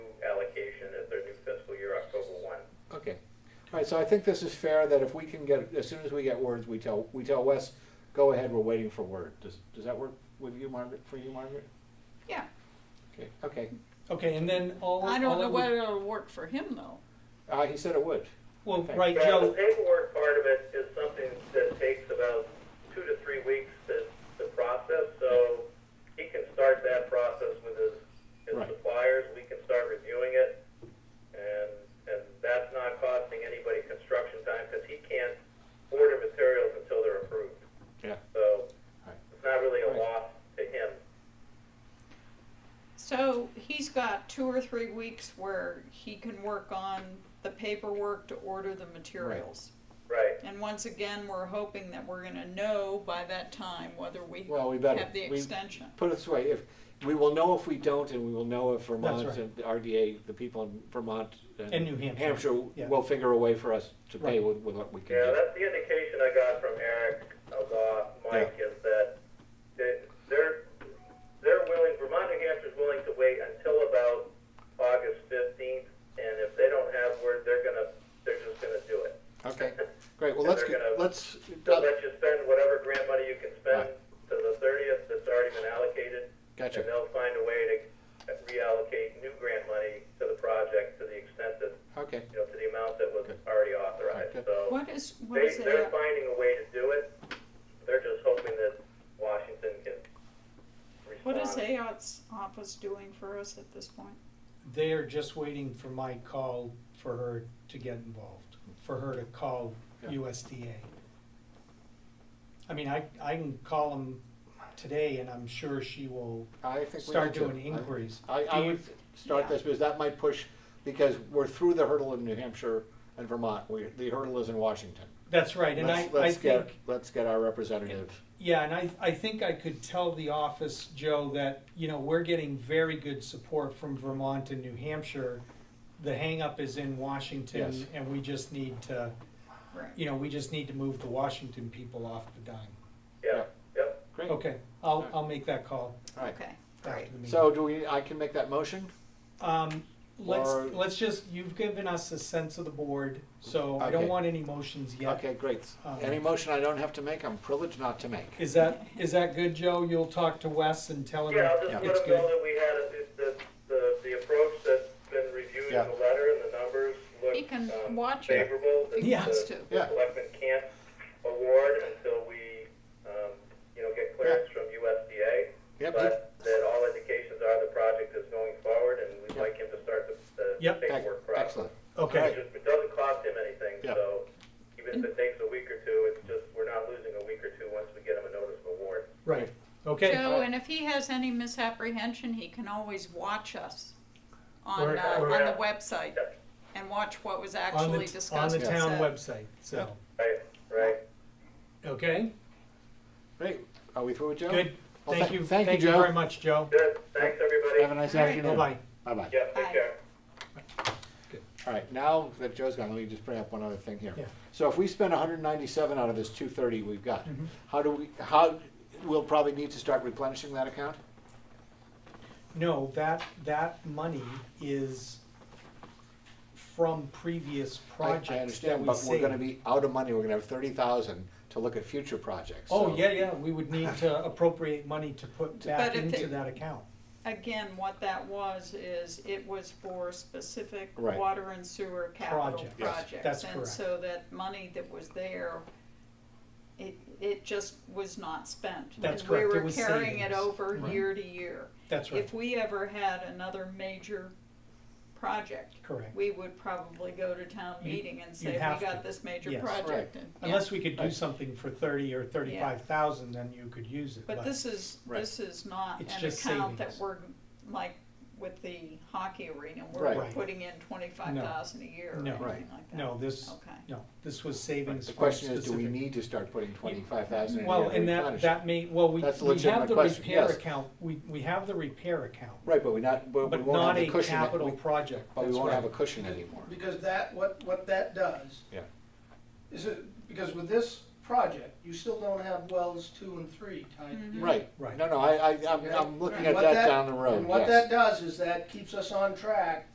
Alright, so I think this is fair that if we can get, as soon as we get words, we tell, we tell Wes, go ahead, we're waiting for word. Does, does that work with you, Margaret, for you, Margaret? Yeah, Okay, okay. Okay, and then all. I don't all know it would- whether it'll work for him though. Uh, he said it would. Well, Okay. right, Now, the Joe, paperwork part of it is something that takes about two to three weeks to, to process, so he can start that process with his, his Right. suppliers, we can start reviewing it. And, and that's not costing anybody construction time, because he can't order materials until they're approved. Yeah. So Right. it's not really a Right. loss to him. So he's got two or three weeks where he can work on the paperwork to order the materials. Right, And once again, we're hoping that we're gonna know by that time whether we Well, we better. have the We- extension. Put it this way, if, we will know if we don't, and we will know if Vermont right. and the RDA, the people in Vermont And and New Hampshire, Hampshire yeah. will figure a way for us to pay Right. with, with what we can yeah, do. that's the indication I got from Eric, uh, Law, Mike, is that they- they're, they're willing, Vermont, New Hampshire's willing to wait until about August fifteenth, and if they don't have word, they're gonna, they're just gonna do it. Okay, great, well, let's, They're get- gonna- let's, They'll let you spend whatever grant money you can spend Right. to the thirtieth that's already been allocated. Gotcha. And they'll find a way to reallocate new grant money to the project to the extent that, okay, you know, to the amount that was Good. already authorized, Good. so. What is, what They, is they're it? finding a way to do it. They're just hoping that Washington can What is respond. AOT's office doing for us at this point? they are just waiting for my call for her to get involved, for her to call Yeah. USDA. I mean, I, I can call them today and I'm sure she will I think we need start to. doing I- inquiries. I, I Do you- would start this because that might push, because we're through the hurdle in New Hampshire and Vermont. We, the hurdle is in Washington. That's right, and I, Let's- I let's get- think, Let's get our representative. yeah, and I, I think I could tell the office, Joe, that, you know, we're getting very good support from Vermont and New Hampshire. The hangup is in Yes. Washington and we just need to, Right. you know, we just need to move the Washington people off the dime. Yeah, yep. Great, all Okay, I'll, Alright. I'll make that call right. Okay, after great. the meeting. So do we, I can make that motion? Um, let's, Or- let's just, you've given us a sense of the board, so I Okay. don't want any motions yet. Okay, great. Um, Any motion I don't have to make, I'm privileged not to make. Is that, is that good, Joe? You'll talk to Wes and tell him Yeah, I'll just it's let them know good? that we had, a- the, the, the approach that's been reviewed in Yeah. the letter and the numbers look He can um, watch it favorable. if he Yeah. wants to. Yeah. The selectmen can't award until we, um, you know, get clearance from USDA. Yep, But that all indications are the project is going forward and we'd Yeah. like him to start the, the Yep. ec- paperwork process. excellent. Okay, It just- It doesn't cost him anything, Yeah. so even if it takes a week or two, it's just, we're not losing a week or two once we get him a notice of award. right, okay. Joe, and if he has any misapprehension, he can always watch us on, Or- uh, on or- the website Yeah. and watch what was On actually the, on discussed the and town said. website, so, Right, right. okay, Great. Are we through with Joe? good. Well, Thank thank- you, thank you, thank you Joe. very much, Joe. Good, thanks, everybody. Have a nice All right. afternoon. Bye-bye. Bye-bye. Yeah, Bye. take care. All right, now that Joe's gone, let me just bring up one other thing here. Yeah. So if we spend hundred and ninety-seven out of this two thirty we've got, Mm-hmm. how do we, how, we'll probably need to start replenishing that account? No, that, that money is from previous I- projects I that understand, we but we're gonna saved. be out of money, we're gonna have thirty thousand to look at future projects. Oh, so- yeah, yeah, we would need to appropriate money to put back But if into it- that account. Again, what that was is it was for specific Right. water and sewer capital Projects. Yes. projects. That's And correct. so that money that was there, it, it just was not spent. That's And correct. We It were was carrying it savings. over Right. year to year. That's right, If we ever had another major project, correct. we would probably go to town You- meeting and you say, we have got to. this major Yes. project. and- yeah. Unless we could do Right. something for thirty or thirty-five thousand, then you could use it, But but, this is, Right. this is not It's an just account that savings. we're, like, with the hockey arena, Right. we're Right. putting in twenty-five thousand a year or No. anything Right. like that. no, this, Okay. no, this was Right, savings The for question is, do we specific- need to start putting twenty-five thousand in Well, here to and that, replenish? that may, well, we, That's a we legitimate have the question, repair yes. account, we, we have the repair account, Right, but we not, but we but won't have not the a cushion, that capital we- project, but we that's won't have a right. cushion anymore. Because that, what, what that does. Yeah. Is it, because with this project, you still don't have wells two and three tied Mhm. together. Right, Right. no, no, I, I, I'm, Okay? I'm looking And at what that down the road, And what yes. that does is that keeps us on track